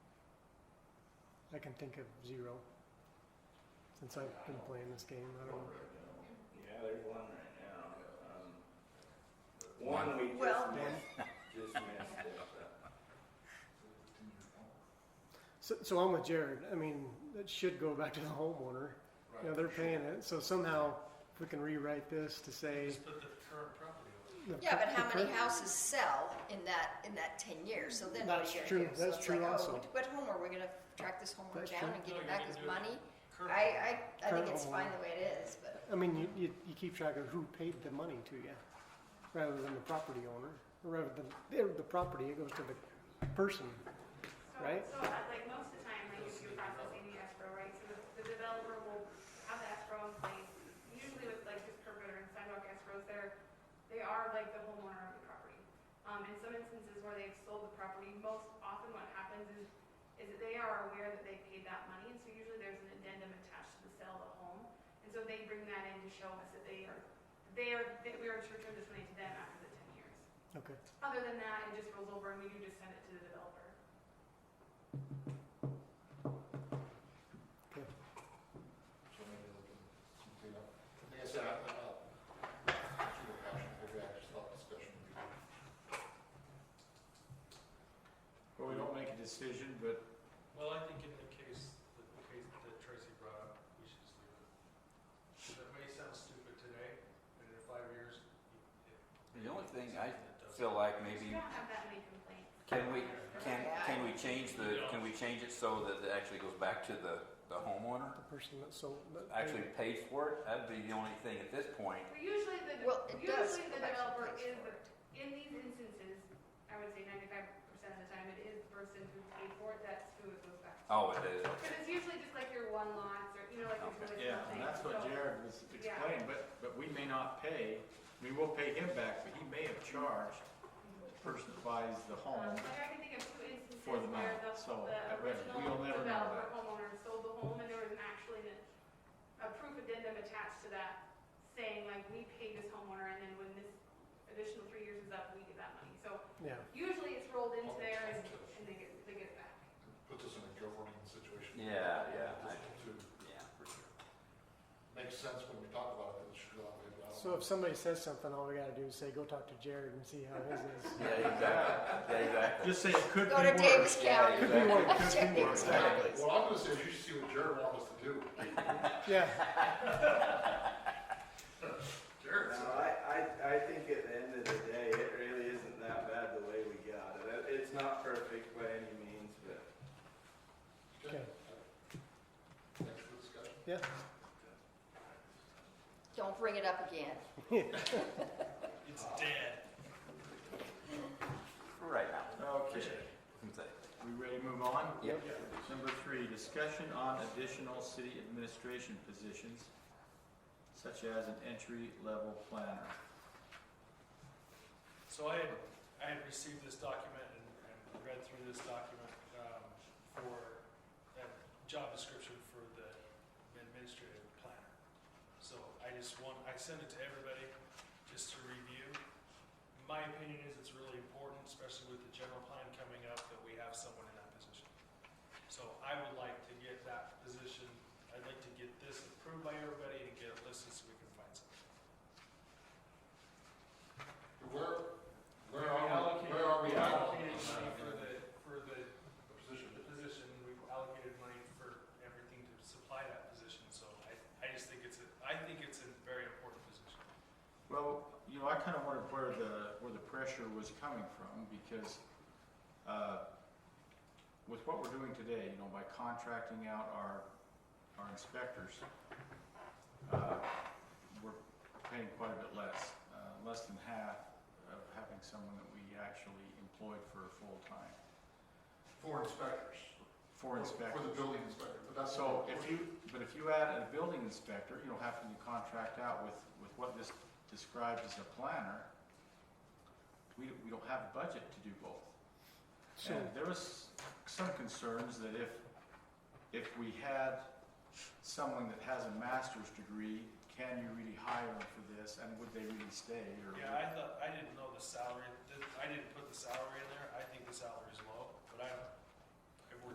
I can think of zero since I've been playing this game. I don't know. Yeah, there's one right now. Um, one we just Well- missed, just missed it. So, so I'm with Jared. I mean, it should go back to the homeowner. You know, they're paying it. So somehow, if we can rewrite this to say. Just put the current property on. the Yeah, but cur- how the many cur- houses sell in that, in that ten years, so then what That's are you true. gonna do? So That's it's true like, oh, also. what- What home are we gonna track this homeowner That's down true. and get No, him you back can his do it. money? Current. I, I, I think Current it's homeowner. fine the way it is, but I mean, you, you, you keep track of who paid the money to you rather than the property owner. Rather than the, the property, it goes to the person. So- right? So, uh, like, most of the time, like, if you're processing the escrow, right, so the, the developer will have the escrow in place. Usually with like just curb gutter and sidewalk escrows, they're, they are like the homeowner of the property. Um, in some instances where they've sold the property, most often what happens is, is that they are aware that they paid that money, and so usually there's an addendum attached to the sale of the home. And so they bring that in to show us that they are, they are, that we are to return this money to them after the ten years. Okay. Other than that, it just rolls over and we do just send it to the developer. Okay. So maybe we can complete up. Like I said, I, I, uh, through the passion, maybe I just thought discussion would be good. Well, we don't make a decision, but Well, I think in the case, the the case that Tracy brought up, we should just leave it. That may sound stupid today, but in five years. it- it- The only thing I something that does- feel like We maybe, don't have that many complaints. can we, can, can we change the, can we change it so that it actually goes back to the, the homeowner? The person that sold. that paid Actually paid for it? That'd be the only thing at this point. But usually the, de- Well, it does go usually the back to the developer place is, for it. the- in these instances, I would say ninety-five percent of the time, it is the person who paid for it, that's who it goes back to. Oh, it is. Because it's usually just like your one lots or, you know, like it's really something. yeah, and that's what So- um, Jared was Yeah. explaining, but, but we may not pay, I mean, we'll pay him back, but he may have charged the person that buys the Um, home. Like I can think of two instances For the where the, amount, so the that- we'll original never know developer that. homeowner sold the home and there was an actually an- a proof addendum attached to that saying like, we paid this homeowner and then when this additional three years is up, we get that money. So Yeah. usually it's rolled into there and, and they get, they get it back. Puts us in a governing situation. Yeah, yeah, I- This too. Yeah. Makes sense when we talk about it, that it should go that way, but I don't So if know. somebody says something, all we got to do is say, go talk to Jared and see how his is. Yeah, exactly. Yeah, exactly. Just say it could be go to Davis worse. Yeah, County. exactly. Check Davis County. What I'm gonna say is you should see what Jared wants us to do. Yeah. Jared's. No, I, I, I think at the end of the day, it really isn't that bad the way we got it. It- It's not perfect by any means, but Okay. Thanks for the discussion. Yeah. Don't bring it up again. It's dead. Right now. Okay, Exactly. we ready to move on? Yep. Number three, discussion on additional city administration positions, such as an entry-level planner. So I had, I had received this document and, and read through this document, um, for a job description for the administrative planner. So I just want, I sent it to everybody just to review. My opinion is it's really important, especially with the general plan coming up, that we have someone in that position. So I would like to get that position, I'd like to get this approved by everybody and get it listed so we can find someone. Where, where are we, where are we at? on Allocated money that? for the, for the The position. the position, we've allocated money for everything to supply that position, so I, I just think it's a, I think it's a very important position. Well, you know, I kind of wondered where the, where the pressure was coming from, because, uh, with what we're doing today, you know, by contracting out our, our inspectors, uh, we're paying quite a bit less, uh, less than half of having someone that we actually employed for full time, For inspectors. for inspectors. For the building inspector, but that's. So if you, but if you add a building inspector, you know, having to contract out with, with what this describes as a planner, we, we don't have a budget to do both. So And there was some concerns that if, if we had someone that has a master's degree, can you really hire them for this, and would they really stay, or? Yeah, I thought, I didn't know the salary, th- I didn't put the salary in there, I think the salary is low, but I,